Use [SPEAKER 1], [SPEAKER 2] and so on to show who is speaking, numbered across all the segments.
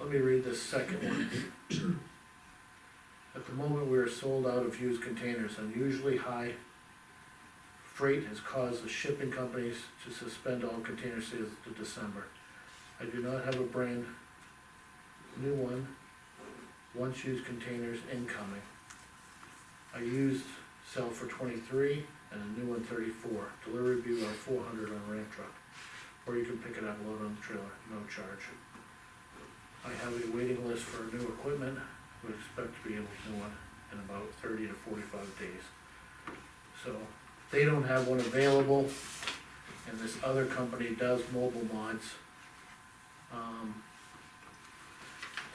[SPEAKER 1] Let me read this second one. At the moment, we are sold out of used containers. Unusually high freight has caused the shipping companies to suspend all container sales to December. I do not have a brand new one, once used containers incoming. I used sell for twenty-three and a new one thirty-four. Delivery will be around four hundred on ramp truck. Or you can pick it up, load on the trailer, no charge. I have a waiting list for new equipment, would expect to be able to do one in about thirty to forty-five days. So, they don't have one available, and this other company does mobile mods. Um,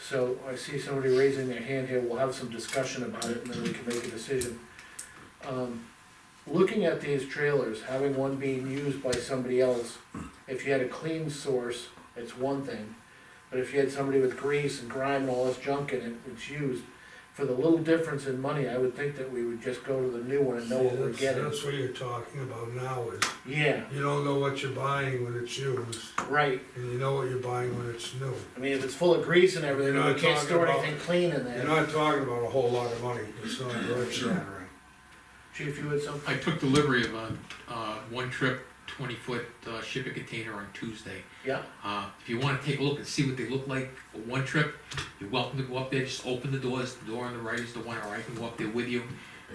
[SPEAKER 1] So I see somebody raising their hand here, we'll have some discussion about it, and then we can make a decision. Um, Looking at these trailers, having one being used by somebody else, if you had a clean source, it's one thing. But if you had somebody with grease and grime and all this junk in it, it's used, for the little difference in money, I would think that we would just go to the new one and know what we're
[SPEAKER 2] That's-
[SPEAKER 1] getting.
[SPEAKER 2] That's what you're talking about now, is
[SPEAKER 1] Yeah,
[SPEAKER 2] you don't know what you're buying when it's used,
[SPEAKER 1] right,
[SPEAKER 2] and you know what you're buying when it's new.
[SPEAKER 1] I mean, if it's full of grease and everything,
[SPEAKER 2] You're
[SPEAKER 1] we
[SPEAKER 2] not
[SPEAKER 1] can't
[SPEAKER 2] talking
[SPEAKER 1] store
[SPEAKER 2] about-
[SPEAKER 1] anything clean in
[SPEAKER 2] You're
[SPEAKER 1] there.
[SPEAKER 2] not talking about a whole lot of money, it's not earth shattering.
[SPEAKER 1] Chief, you had something?
[SPEAKER 3] I took delivery of a, uh, one trip, twenty foot, uh, shipping container on Tuesday.
[SPEAKER 1] Yeah,
[SPEAKER 3] Uh, if you wanna take a look and see what they look like for one trip, you're welcome to go up there, just open the doors, the door on the right is the one, or I can go up there with you.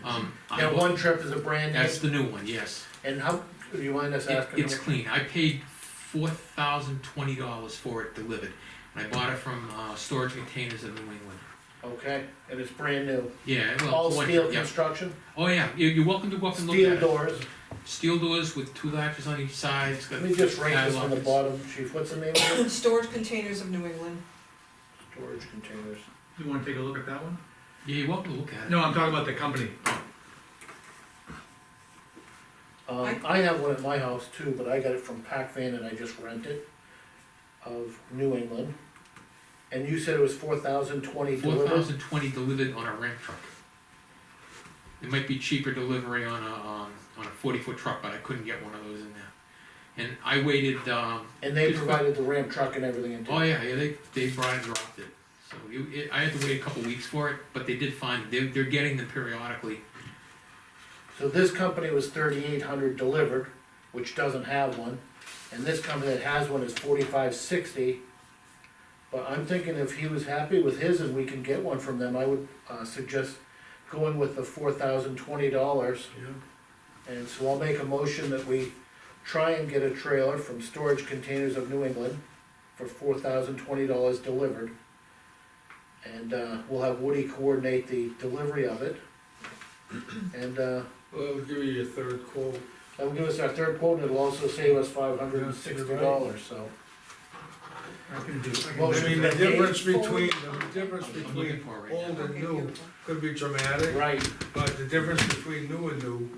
[SPEAKER 3] Um, I,
[SPEAKER 1] that
[SPEAKER 3] wa-
[SPEAKER 1] one trip is a brand
[SPEAKER 3] that's
[SPEAKER 1] new,
[SPEAKER 3] the new one, yes.
[SPEAKER 1] and how, do you mind us
[SPEAKER 3] It-
[SPEAKER 1] asking?
[SPEAKER 3] It's
[SPEAKER 1] how-
[SPEAKER 3] clean, I paid four thousand twenty dollars for it delivered, and I bought it from, uh, Storage Containers of New England.
[SPEAKER 1] Okay, and it's brand new,
[SPEAKER 3] Yeah, well.
[SPEAKER 1] all
[SPEAKER 3] one
[SPEAKER 1] steel
[SPEAKER 3] trip, yeah.
[SPEAKER 1] construction,
[SPEAKER 3] Oh, yeah, you're, you're welcome to go up and look at it.
[SPEAKER 1] steel doors,
[SPEAKER 3] Steel doors with two latches on each side, it's got.
[SPEAKER 1] let me just write this on the
[SPEAKER 3] padlocks.
[SPEAKER 1] bottom, chief, what's the name of it?
[SPEAKER 4] Storage containers of New England.
[SPEAKER 1] Storage containers,
[SPEAKER 5] You wanna take a look at that one?
[SPEAKER 3] Yeah, you're welcome to look at it.
[SPEAKER 5] No, I'm talking about the company.
[SPEAKER 1] um, I have one at my house too, but I got it from Pac Van and I just rent it, of New England. And you said it was four thousand twenty
[SPEAKER 3] Four
[SPEAKER 1] delivered,
[SPEAKER 3] thousand twenty delivered on a ramp truck. It might be cheaper delivery on a, on, on a forty foot truck, but I couldn't get one of those in there. And I waited, um,
[SPEAKER 1] and they
[SPEAKER 3] Just-
[SPEAKER 1] provided the ramp truck and everything in.
[SPEAKER 3] oh yeah, yeah, they, they brought and dropped it. So you, it, I had to wait a couple weeks for it, but they did find, they're, they're getting them periodically.
[SPEAKER 1] So this company was thirty-eight hundred delivered, which doesn't have one, and this company that has one is forty-five sixty. But I'm thinking if he was happy with his and we can get one from them, I would, uh, suggest going with the four thousand twenty dollars. And so I'll make a motion that we try and get a trailer from Storage Containers of New England for four thousand twenty dollars delivered. And, uh, we'll have Woody coordinate the delivery of it. And, uh,
[SPEAKER 2] Well, I'll give you your third quote.
[SPEAKER 1] that will give us our third quote, and it'll also save us five hundred and sixty dollars, so.
[SPEAKER 5] I can do, I
[SPEAKER 1] Well,
[SPEAKER 5] can
[SPEAKER 2] I
[SPEAKER 1] should
[SPEAKER 5] do.
[SPEAKER 2] mean,
[SPEAKER 1] we
[SPEAKER 2] the
[SPEAKER 1] have
[SPEAKER 2] difference
[SPEAKER 1] eight quotes?
[SPEAKER 2] between, the difference
[SPEAKER 3] I'm looking
[SPEAKER 2] between
[SPEAKER 3] for it right now.
[SPEAKER 2] old and
[SPEAKER 4] Okay,
[SPEAKER 2] new
[SPEAKER 4] beautiful.
[SPEAKER 2] could be dramatic,
[SPEAKER 1] Right,
[SPEAKER 2] but the difference between new and new,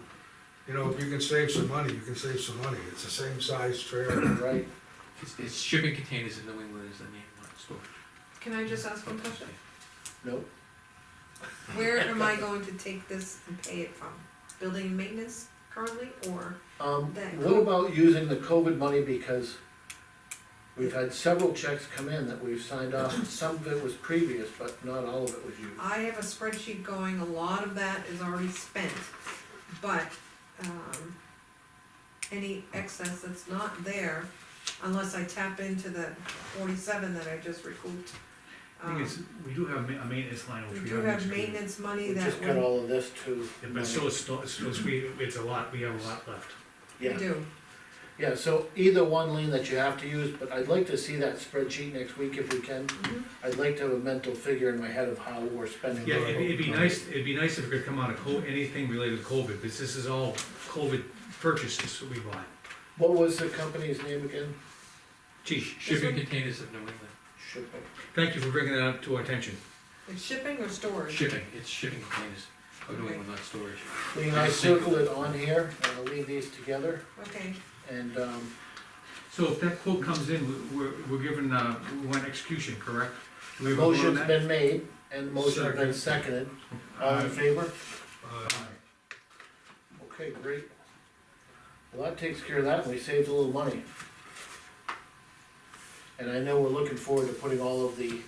[SPEAKER 2] you know, if you can save some money, you can save some money, it's the same size trailer.
[SPEAKER 1] right.
[SPEAKER 3] It's, it's shipping containers in New England is the name of the store.
[SPEAKER 4] Can I just ask one question?
[SPEAKER 1] Nope,
[SPEAKER 4] Where am I going to take this and pay it from? Building and maintenance currently, or?
[SPEAKER 1] um,
[SPEAKER 4] That-
[SPEAKER 1] what about using the COVID money, because we've had several checks come in that we've signed off, some of it was previous, but not all of it was used.
[SPEAKER 4] I have a spreadsheet going, a lot of that is already spent, but, um, any excess that's not there, unless I tap into the forty-seven that I just recouped.
[SPEAKER 5] I think it's,
[SPEAKER 4] um,
[SPEAKER 5] we do have ma- a maintenance line
[SPEAKER 4] We
[SPEAKER 5] which we
[SPEAKER 4] do
[SPEAKER 5] haven't.
[SPEAKER 4] have
[SPEAKER 5] expended.
[SPEAKER 4] maintenance money
[SPEAKER 1] We
[SPEAKER 4] that
[SPEAKER 1] just got
[SPEAKER 4] we,
[SPEAKER 1] all of this to.
[SPEAKER 5] Yeah, But still, it's, still, it's still- it's, we, it's a lot, we have a lot left.
[SPEAKER 4] we
[SPEAKER 1] Yeah,
[SPEAKER 4] do,
[SPEAKER 1] yeah, so either one lean that you have to use, but I'd like to see that spreadsheet next week if we can.
[SPEAKER 4] Mhm.
[SPEAKER 1] I'd like to have a mental figure in my head of how we're spending.
[SPEAKER 5] Yeah,
[SPEAKER 1] our
[SPEAKER 5] it'd, be- it'd be
[SPEAKER 1] money.
[SPEAKER 5] nice, it'd be nice if it could come out of co, anything related to COVID, because this is all COVID purchases that we bought.
[SPEAKER 1] What was the company's name again?
[SPEAKER 5] Geez,
[SPEAKER 3] Shipping
[SPEAKER 4] one?
[SPEAKER 3] containers of New England,
[SPEAKER 1] Shipping.
[SPEAKER 5] thank you for bringing that up to our attention.
[SPEAKER 4] it's shipping or storage?
[SPEAKER 3] shipping, it's shipping containers of New England, not storage.
[SPEAKER 1] Lean, I circled it on here, and I'll leave these together,
[SPEAKER 4] Okay,
[SPEAKER 1] and, um,
[SPEAKER 5] So if that quote comes in, we- we're, we're given, uh, we want execution, correct? Do we have a vote on
[SPEAKER 1] motion's
[SPEAKER 5] that?
[SPEAKER 1] been made, and motion's been seconded, all in favor?
[SPEAKER 2] Uh,
[SPEAKER 1] Okay, great. Well, that takes care of that, and we saved a little money. And I know we're looking forward to putting all of the